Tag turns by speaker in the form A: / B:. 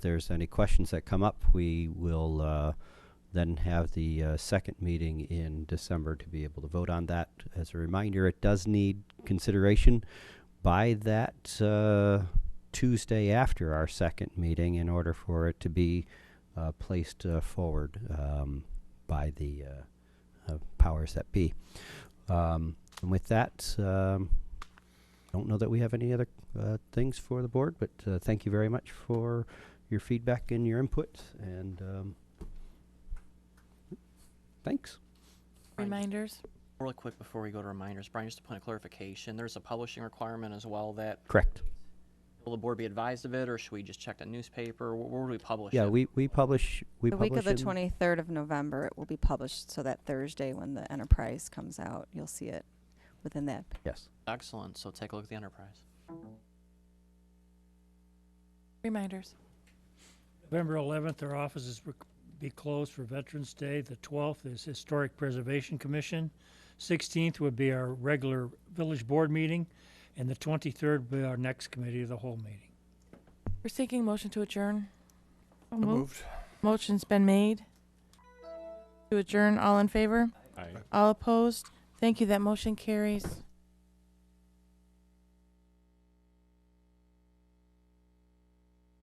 A: there's any questions that come up, we will uh, then have the uh, second meeting in December to be able to vote on that. As a reminder, it does need consideration by that uh, Tuesday after our second meeting in order for it to be uh, placed uh, forward um, by the uh, uh, powers that be. Um, and with that, um, don't know that we have any other uh, things for the board, but uh, thank you very much for your feedback and your input. And um, thanks.
B: Brian, just
C: Reminders?
B: Really quick before we go to reminders, Brian, just a point of clarification, there's a publishing requirement as well that,
A: Correct.
B: will the board be advised of it, or should we just check the newspaper? Wh- Where would we publish it?
A: Yeah, we, we publish. We
C: The
A: publish
C: week of the
A: in-
C: 23rd of November, it will be published, so that Thursday when the Enterprise comes out, you'll see it within that.
A: Yes.
B: Excellent, so take a look at the enterprise.
C: Reminders.
D: November 11th, our offices will be closed for Veterans Day. The 12th is Historic Preservation Commission. 16th would be our regular village board meeting, and the 23rd will be our next committee of the whole meeting.
E: We're seeking motion to adjourn. Motion's been made to adjourn. All in favor? All opposed? Thank you. That motion carries.